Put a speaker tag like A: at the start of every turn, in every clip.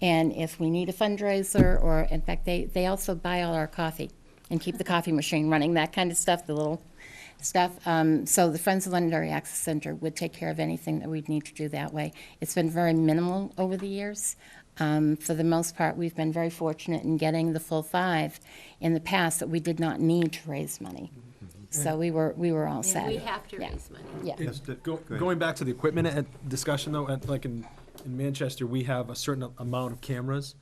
A: And if we need a fundraiser, or in fact, they, they also buy all our coffee and keep the coffee machine running, that kind of stuff, the little stuff. Um, so the Friends of Londonderry Access Center would take care of anything that we'd need to do that way. It's been very minimal over the years. Um, for the most part, we've been very fortunate in getting the full five in the past that we did not need to raise money.
B: Mm-hmm.
A: So we were, we were all set.
C: And we have to
A: Yeah.
C: raise money.
A: Yeah.
D: It-
B: Yes, the-
D: go-
B: go ahead.
D: Going back to the equipment and discussion though, and like in, in Manchester, we have a certain amount of cameras.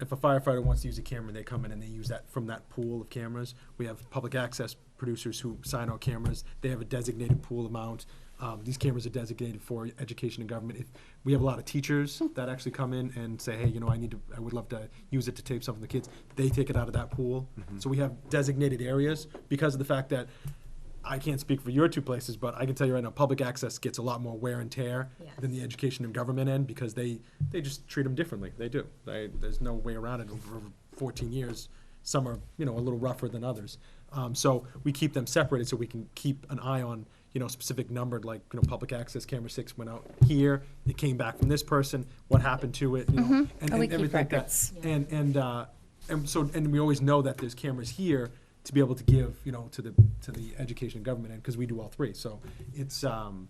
D: If a firefighter wants to use a camera, they come in and they use that from that pool of cameras. We have public access producers who sign out cameras. They have a designated pool amount. Um, these cameras are designated for education and government. If, we have a lot of
B: Hmm.
D: teachers that actually come in and say, hey, you know, I need to, I would love to use it to tape something to kids. They take it out of that pool.
B: Mm-hmm.
D: So we have designated areas because of the fact that I can't speak for your two places, but I can tell you right now, public access gets a lot more wear and tear than the education and government end because they, they just treat them differently. They do. They, there's no way around it. Over 14 years, some are you know a little rougher than others. Um, so we keep them separated so we can keep an eye on you know specific numbered like you know public access camera six went out here. It came back from this person. What happened to it? You know, and,
A: Mm-hmm. And we
D: and
A: keep
D: everything like that
A: records.
D: and and uh, and so and we always know that there's cameras here to be able to give you know to the to the education and government end because we do all three. So it's um,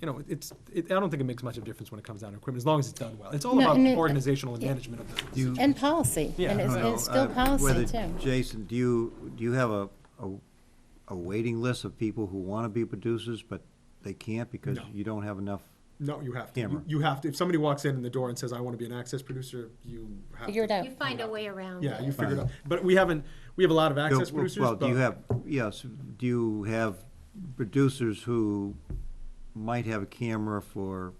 D: you know it's it, I don't think it makes much of a difference when it comes down to equipment as long as it's done well. It's all
A: No,
D: about
A: and it-
D: organizational and management of the.
B: You-
A: And policy. And
D: Yeah.
A: it's,
B: I don't
A: it's
B: know,
A: still
B: uh,
A: policy
B: whether-
A: too.
B: Jason, do you, do you have a, a, a waiting list of people who want to be producers, but they can't because
D: No.
B: you don't have enough?
D: No, you have to. You,
B: Camera.
D: you have to. If somebody walks in the door and says, "I want to be an access producer," you have
A: Figure it
D: to,
A: out.
C: You find a way around it.
D: Yeah, you figure it out. But we haven't. We have a lot of access
B: Well,
D: producers.
B: Well, do you
D: but-
B: have, yes, do you have producers who might have a camera for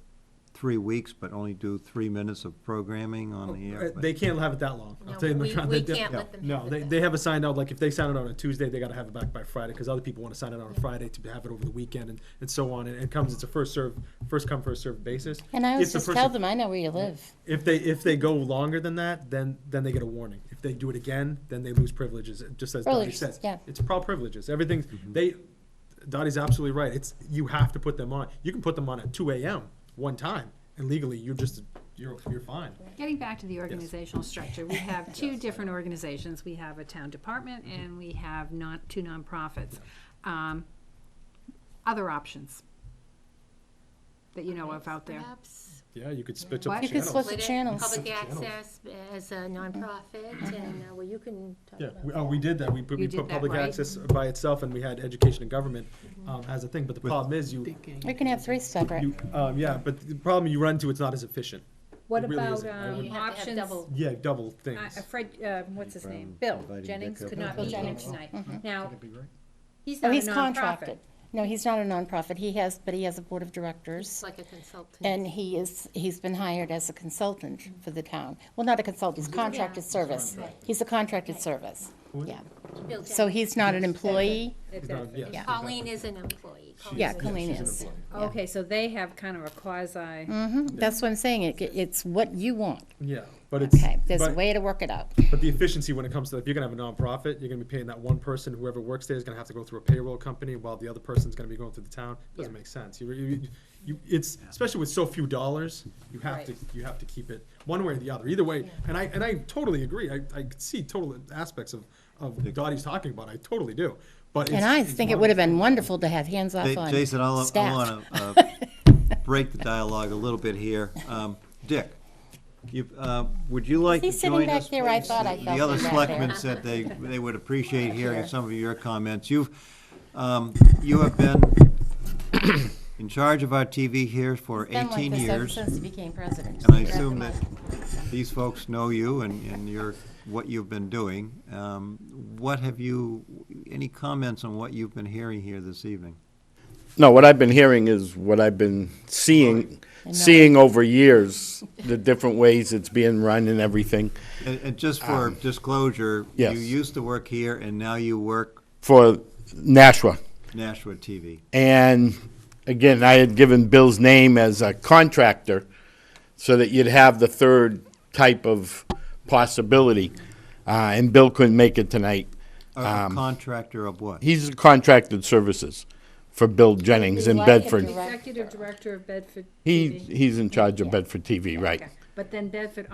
B: three weeks, but only do three minutes of programming on
D: Uh,
B: the air? but-
D: They can't have it that long. I'll
C: No,
D: tell you,
C: we-
D: they're trying-
C: we
D: they-
C: can't let them have
D: No,
C: it
D: they,
C: that
D: they have a signed out, like if they sign it out on a Tuesday, they gotta have it back by Friday, because other people wanna sign it out on Friday to have it over the weekend and, and so on. And it comes, it's a first serve, first come, first served basis.
A: And I
D: If
A: always
D: the
A: just
D: person-
A: tell them, I know where you live.
D: If they, if they go longer than that, then, then they get a warning. If they do it again, then they lose privileges, It just as Dottie
A: Privileges,
D: says.
A: yeah.
D: It's all privileges. Everything's, they, Dottie's absolutely right. It's, you have to put them on. You can put them on at two AM, one time, and legally, you're just, you're, you're fine.
E: Getting back to the organizational structure, we have two different organizations. We have a town department
D: Mm-hmm.
E: and we have non, two nonprofits. Um, Other options that you know of out there?
C: Perhaps
D: Yeah, you could split up
E: Why-
D: the
E: You could
D: channels.
A: split
C: split
A: the
C: it,
A: channels.
C: Public
D: Channels.
C: access as a
A: Mm-hmm.
C: nonprofit and, uh, well, you can talk
D: Yeah,
C: about.
D: we, oh, we did that, we put, we
E: You did
D: put
E: that,
D: public
E: right? Mm-hmm.
D: access by itself, and we had education and government, um, as a thing, but the problem is you,
A: We can have three separate.
D: you, um, yeah, but the problem you run into, it's not as efficient.
E: What
D: It really
E: about
D: isn't. I
E: um,
D: would-
C: You have to have
E: options?
C: double.
D: Yeah, double
E: Uh,
D: things.
E: Fred, uh, what's his name?
B: Brown
E: Bill
B: invited
E: Jennings
B: Dick up
E: could
B: to
E: not
D: Mm-hmm.
A: Bill
E: be here
A: Jennings.
E: tonight.
C: Mm-hmm.
E: Now, he's
A: Oh,
E: not a
A: he's
E: nonprofit.
A: contracted. No, he's not a nonprofit. He has, but he has a board of directors.
C: It's like a consultant.
A: And he is, he's been hired as a consultant for the town. Well, not a consultant, he's contracted service. He's a contracted service, yeah.
C: Bill
A: So
C: Jackson.
A: he's not an employee.
E: It's
D: Not-
E: a-
D: yes,
A: Yeah.
C: Colleen is an employee.
A: Yeah,
C: Colleen's an
A: Colleen
C: employee.
A: is.
E: Okay, so they have kind of a quasi,
C: Mm.
A: Mhm. That's what I'm saying. It, it's what you want,
D: Yeah, but it's,
A: okay? There's a
D: but-
A: way to work it out.
D: But the efficiency when it comes to, if you're gonna have a nonprofit, you're gonna be paying that one person, whoever works there is gonna have to go through a payroll company while the other person's gonna be going through the town. Doesn't make sense. You, you, you, it's, especially with so few dollars, you have to, you have to keep it one way or the other, either way. And I, and I totally agree. I, I see total aspects of, of what Dottie's talking about. I totally do. But it's.
A: And I
D: it's
A: think it
D: one-
A: would have been wonderful to have hands-off
B: Hey,
A: on
B: Jason, I'll, I
A: staff.
B: want to break the dialogue a little bit here. Um, Dick, you, uh, would you like
A: he
B: to
A: sitting
B: join
A: back
B: us,
A: there? I
B: please?
A: thought I
B: The-
A: felt
B: The other
A: him back
B: selectmen
A: there.
B: said they, they would appreciate hearing
A: Sure.
B: some of your comments. You've, um, you have been in charge of our TV here for
A: Been like
B: 18
A: this ever
B: years.
A: Since he became president.
B: And I assume that these folks know you and, and your, what you've been doing. Um, What have you, any comments on what you've been hearing here this evening?
F: No, what I've been hearing is what I've been seeing, seeing over years, the different ways it's being run and everything
B: And, and just for disclosure,
F: yes.
B: you used to work here and now you work
F: for Nashua.
B: Nashua TV.
F: And again, I had given Bill's name as a contractor so that you'd have the third type of possibility. Uh, and Bill couldn't make it tonight.
B: A contractor of what?
F: He's contracted services for Bill Jennings in
A: He's like a
F: Bedford.
A: direct-
E: executive director of Bedford
F: He,
E: TV.
F: he's in charge of Bedford TV, right.
E: Okay. But then Bedford